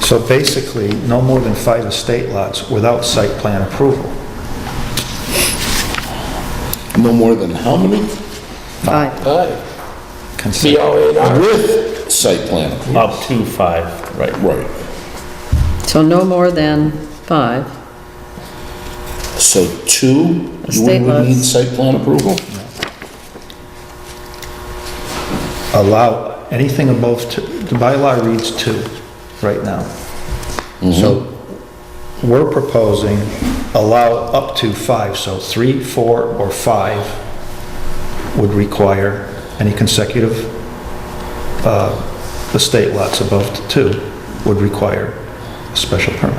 So basically, no more than five estate lots without site plan approval. No more than how many? Five. Five. Consent. COA with site plan. Up to five, right. Right. So no more than five. So two, you Estate wouldn't need lots. site plan approval? Allow anything above, two- the bylaw reads two right now. So we're proposing allow up to five, so three, four, or five would require any consecutive uh, estate lots above two would require a special permit.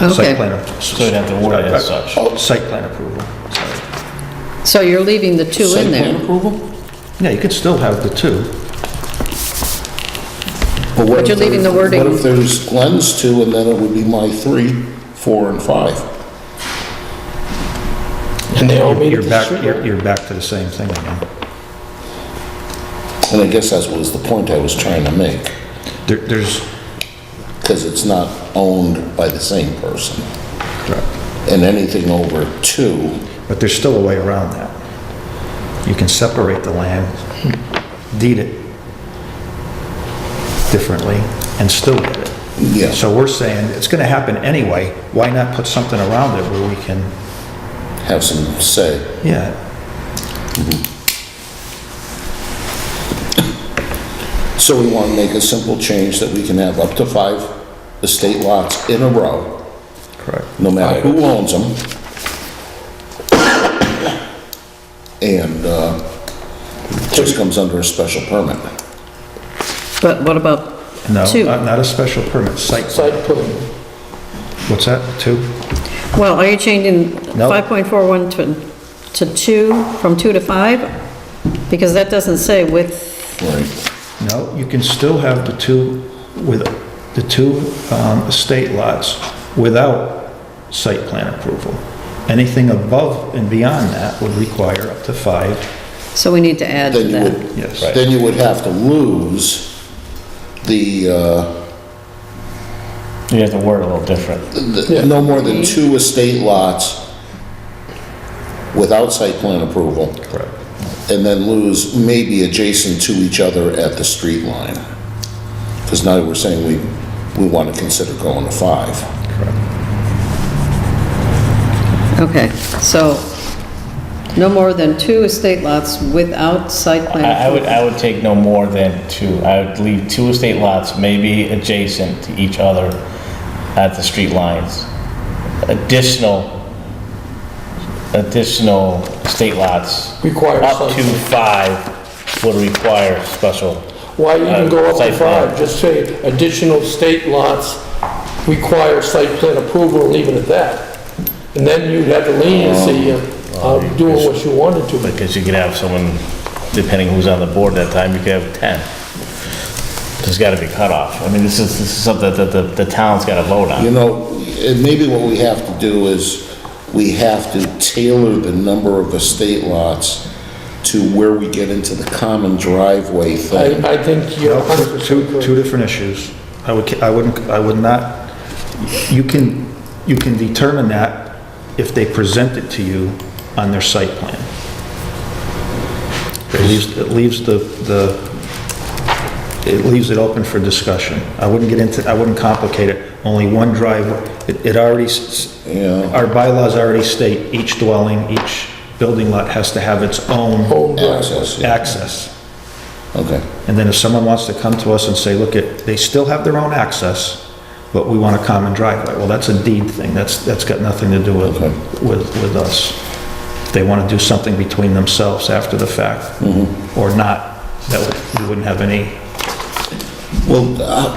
Okay. Site plan. a- So you'd have to word it as such. Oh, Site plan approval. sorry. So you're leaving the two in Site plan there, approval? Yeah, you could still have the two. But you're leaving the wording- What if there's Glenn's two, and then it would be my three, four, and five? And they all meet You're back, you're- you're back to the same thing again. And I guess that was the point I was trying to make, There- There's, because it's not owned by the same person. And anything over two, but there's still a way around that. You can separate the land, deed it differently, and still get it. Yeah. So we're saying, it's going to happen anyway, why not put something around it where we can, have some say. yeah, So we want to make a simple change that we can have up to five estate lots in a row, correct. no matter who owns them. And uh, it just comes under a special permit. but what about No, uh, two? not not a special permit, site, Site what's that, two? Well, are you changing No. 5.41 to, to two, from two to five? Because that doesn't say with, Right. No, you can still have the two with, the two um, estate lots without site plan approval. Anything above and beyond that would require up to five, so we need to add to Then you that. would, yes. then you would have to lose the, uh, You have to word it a little different. the- no more than two estate lots without site plan approval. Correct. and then lose maybe adjacent to each other at the street line. Because now we're saying we, we want to consider going to five. Okay, so no more than two estate lots without site plan I, I would, approval. I would take no more than two. I would leave two estate lots, maybe adjacent to each other at the street lines. Additional, additional estate lots. Require Up to something. five would require special. Why even go up Uh, Site to plan. five? Just say additional state lots require site plan approval, and leave it at that. And then you'd have the leniency Um, of of uh, doing what you wanted to. Because you could have someone, depending who's on the board at that time, you could have 10. There's gotta be cutoff. I mean, this is, this is something that the, the town's gotta vote You on. know, and maybe what we have to do is, we have to tailor the number of estate lots to where we get into the common driveway thing. I, I think you're Well, two- 100% Two, two correct. different issues. I would, I wouldn't, I would not, you can, you can determine that if they present it to you on their site plan. It leaves, it leaves the, the, it leaves it open for discussion. I wouldn't get into, I wouldn't complicate it, only one driveway. It, it already, s- Yeah. s- our bylaws already state each dwelling, each building lot has to have its own Oh. Home driveway. Access, yeah, access. okay. And then if someone wants to come to us and say, look, it, they still have their own access, but we want a common driveway, well, that's a deed thing, that's, that's got nothing to do with, Okay. with, with us. If they want to do something between themselves after the fact, or not, that would- we wouldn't have any, Well, uh,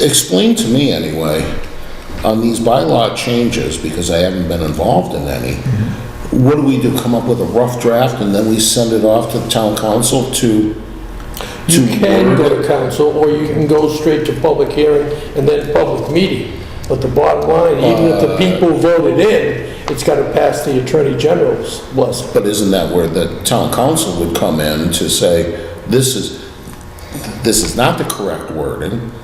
explain to me anyway, on these bylaw changes, because I haven't been involved in any, what do we do, come up with a rough draft and then we send it off to the town council to, You can go to council, or you can go straight to public hearing and then public meeting. But the bottom line, even if Uh, the people voted in, it's gotta pass the Attorney General's blessing. but isn't that where the town council would come in to say, this is, this is not the correct wording,